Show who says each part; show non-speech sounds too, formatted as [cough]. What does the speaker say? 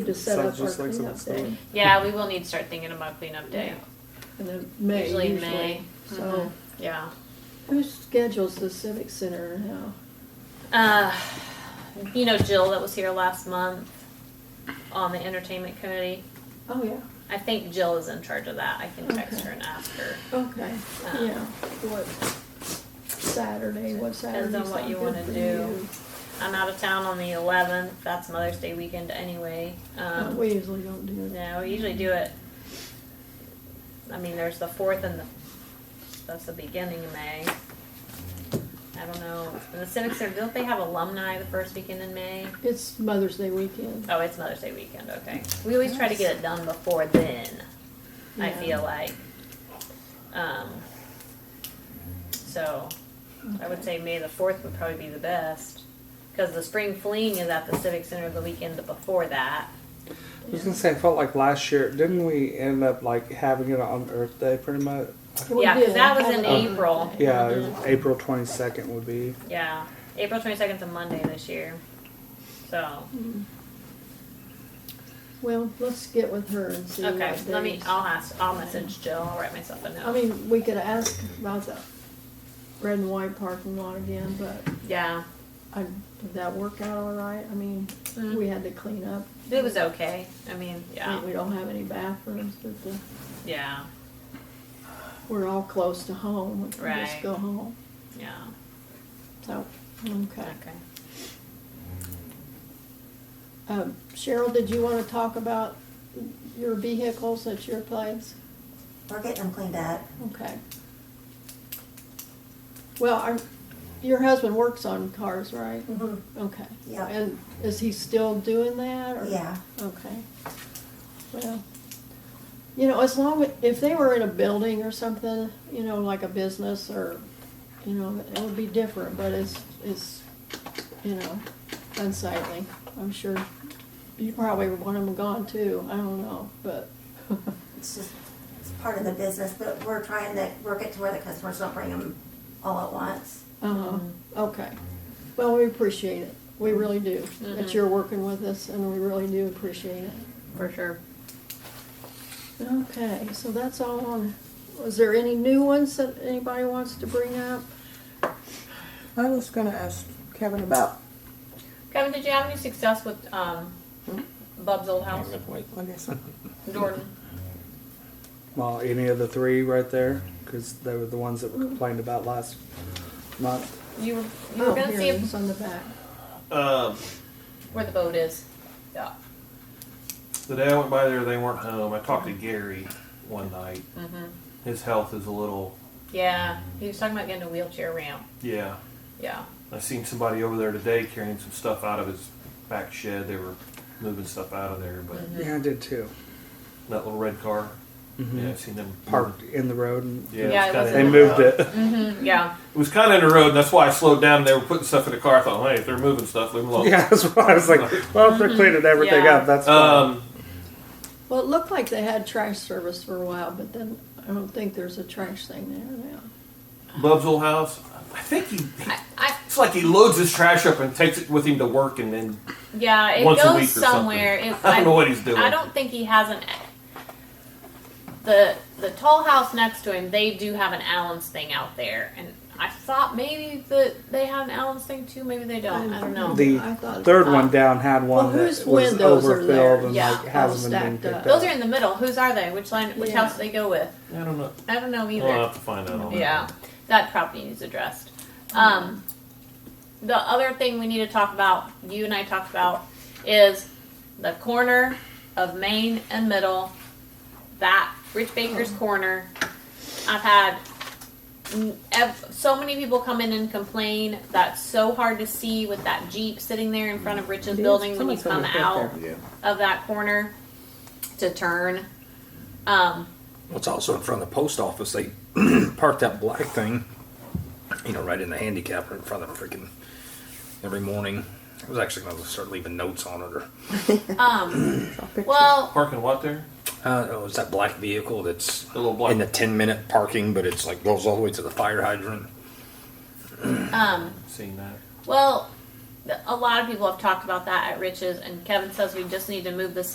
Speaker 1: to set up our
Speaker 2: Sounds just like
Speaker 1: cleanup
Speaker 2: something-
Speaker 1: day.
Speaker 3: Yeah, we will need to start thinking about cleanup day.
Speaker 1: And then May
Speaker 3: Usually
Speaker 1: usually.
Speaker 3: in May. Mm-hmm.
Speaker 1: So
Speaker 3: Yeah.
Speaker 1: who schedules the civic center now?
Speaker 3: Uh, you know Jill that was here last month on the entertainment committee.
Speaker 1: Oh, yeah.
Speaker 3: I think Jill is in charge of that. I can text
Speaker 1: Okay.
Speaker 3: her and ask her.
Speaker 1: Okay,
Speaker 3: Um,
Speaker 1: yeah. What Saturday, what Saturday?
Speaker 3: Depends on what you wanna do. I'm out of town on the 11th. That's Mother's Day weekend anyway. Um,
Speaker 1: We usually don't do that.
Speaker 3: No, we usually do it. I mean, there's the fourth and the, that's the beginning of May. I don't know, the Civic Center, don't they have alumni the first weekend in May?
Speaker 1: It's Mother's Day weekend.
Speaker 3: Oh, it's Mother's Day weekend, okay. We always try to get it done before then, I
Speaker 1: Yeah.
Speaker 3: feel like. Um, so, I would say May the fourth would probably be the best, cause the spring fling is at the Civic Center the weekend before that.
Speaker 2: I was gonna say, I felt like last year, didn't we end up like having it on Earth Day pretty much?
Speaker 1: We
Speaker 3: Yeah, 'cause
Speaker 1: did.
Speaker 3: that was
Speaker 1: Have
Speaker 3: in
Speaker 1: it on
Speaker 3: April.
Speaker 1: Monday.
Speaker 2: Yeah, it was April 22nd would be.
Speaker 3: Yeah, April 22nd is a Monday this year. So,
Speaker 1: Well, let's get with her and see what
Speaker 3: okay,
Speaker 1: days.
Speaker 3: let me, I'll ask, I'll message Jill, I'll write myself a
Speaker 1: I
Speaker 3: note.
Speaker 1: mean, we could ask about the red and white parking lot again, but
Speaker 3: Yeah,
Speaker 1: I, did that work out all right? I mean,
Speaker 3: Mm.
Speaker 1: we had to clean up.
Speaker 3: it was okay. I mean, yeah,
Speaker 1: We- We don't have any bathrooms, but the,
Speaker 3: yeah,
Speaker 1: we're all close to home. We can just
Speaker 3: Right.
Speaker 1: go home.
Speaker 3: yeah,
Speaker 1: So, okay.
Speaker 3: okay.
Speaker 1: Um, Cheryl, did you want to talk about your vehicles at your place?
Speaker 4: We're getting them cleaned up.
Speaker 1: Okay. Well, our, your husband works on cars, right? Okay.
Speaker 4: Yeah.
Speaker 1: And is he still doing that or?
Speaker 4: Yeah.
Speaker 1: Okay. Well, you know, as long, as- if they were in a building or something, you know, like a business or, you know, it would be different, but it's, it's, you know, unsightly. I'm sure you probably want them gone too. I don't know, but, [laughs] uh-huh.
Speaker 4: It's just, it's part of the business, but we're trying to work it to where the customers don't bring them all at once.
Speaker 1: uh,
Speaker 4: Mm-hmm.
Speaker 1: okay. Well, we appreciate it. We really do. That
Speaker 4: Mm-hmm.
Speaker 3: Mhm.
Speaker 1: you're working with us and we really do appreciate it.
Speaker 3: For sure.
Speaker 1: Okay, so that's all on, was there any new ones that anybody wants to bring up?
Speaker 5: I was gonna ask Kevin about,
Speaker 3: Kevin, did you have any success with um, Bub's old house?
Speaker 5: I guess,
Speaker 3: Jordan?
Speaker 2: Well, any of the three right there, because they were the ones that
Speaker 1: Mm.
Speaker 2: were complained about last month.
Speaker 3: You were, you were
Speaker 1: Oh,
Speaker 3: gonna
Speaker 1: here
Speaker 3: see
Speaker 1: it
Speaker 3: if-
Speaker 1: is on the back.
Speaker 6: Um,
Speaker 3: where the boat is. Yeah.
Speaker 6: the day I went by there, they weren't home. I talked to Gary one night. His health is a little,
Speaker 3: Mm-hmm. Yeah, he was talking about getting a wheelchair ramp.
Speaker 6: yeah.
Speaker 3: Yeah.
Speaker 6: I seen somebody over there today carrying some stuff out of his back shed. They were moving stuff out of there, but
Speaker 3: Mm-hmm.
Speaker 2: Yeah, I did too.
Speaker 6: that little red car, yeah, I seen them
Speaker 2: Mm-hmm. Parked in the road. And
Speaker 6: Mm. Yeah,
Speaker 3: Yeah, it
Speaker 6: it was
Speaker 3: was
Speaker 6: kinda,
Speaker 2: They moved it.
Speaker 6: [laughs]
Speaker 1: Mm-hmm.
Speaker 3: Mm, Yeah,
Speaker 6: It was kind of in the road, and that's why I slowed down. They were putting stuff in the car. I thought, hey, if they're moving stuff, leave them alone.
Speaker 2: [laughs] Yeah, that's why I was
Speaker 6: [laughs]
Speaker 2: like, well, if they're cleaning everything
Speaker 3: Yeah.
Speaker 2: up, that's fine.
Speaker 6: Um,
Speaker 1: Well, it looked like they had trash service for a while, but then I don't think there's a trash thing there now.
Speaker 6: Bub's old house. I think he. he-
Speaker 3: I, I,
Speaker 6: It's like he loads his trash up and takes it with him to work, and then
Speaker 3: yeah, it
Speaker 6: Once a
Speaker 3: goes
Speaker 6: week or something.
Speaker 3: somewhere. It-
Speaker 6: I don't know what he's doing.
Speaker 3: I don't think he has an. The the tall house next to him, they do have an Allen's thing out there, and I thought maybe that they have an Allen's thing too. Maybe they don't. I don't know.
Speaker 2: The
Speaker 1: Oh, I thought-
Speaker 2: third
Speaker 3: uh,
Speaker 2: one down had
Speaker 1: Well,
Speaker 2: one
Speaker 1: whose
Speaker 2: that was
Speaker 1: windows are there?
Speaker 2: overfilled and
Speaker 3: Yeah,
Speaker 2: like
Speaker 1: all
Speaker 2: hasn't been
Speaker 1: stacked
Speaker 2: picked
Speaker 1: up.
Speaker 2: up.
Speaker 3: Those are in the middle. Whose are they? Which line? Which
Speaker 1: Yeah.
Speaker 3: house do they go with?
Speaker 6: I don't know.
Speaker 3: I don't know either.
Speaker 6: We'll have to find out. on that.
Speaker 3: Yeah, that property needs addressed. Um, the other thing we need to talk about, you and I talked about, is the corner of Main and Middle, that Rich
Speaker 5: Oh.
Speaker 3: Baker's corner. I've had mm, ev- so many people come in and complain. That's so hard to see with that Jeep sitting there in front of Rich's building when you
Speaker 5: Someone's gonna
Speaker 3: come
Speaker 5: get there.
Speaker 3: out of that corner to turn. Um,
Speaker 7: Well, It's also in front of the post office. They [clears throat] park that black thing, you know, right in the handicap or in front of the freaking every morning. I was actually going to start leaving notes on it. Or
Speaker 3: um,
Speaker 5: pictures.
Speaker 3: well,
Speaker 6: Parking lot there.
Speaker 7: uh, oh, it's that black vehicle that's
Speaker 6: The little black-
Speaker 7: in the ten minute parking, but it's like goes all the way to the fire hydrant.
Speaker 3: um,
Speaker 6: Seen that.
Speaker 3: Well, th- a lot of people have talked about that at Rich's, and Kevin says we just need to move this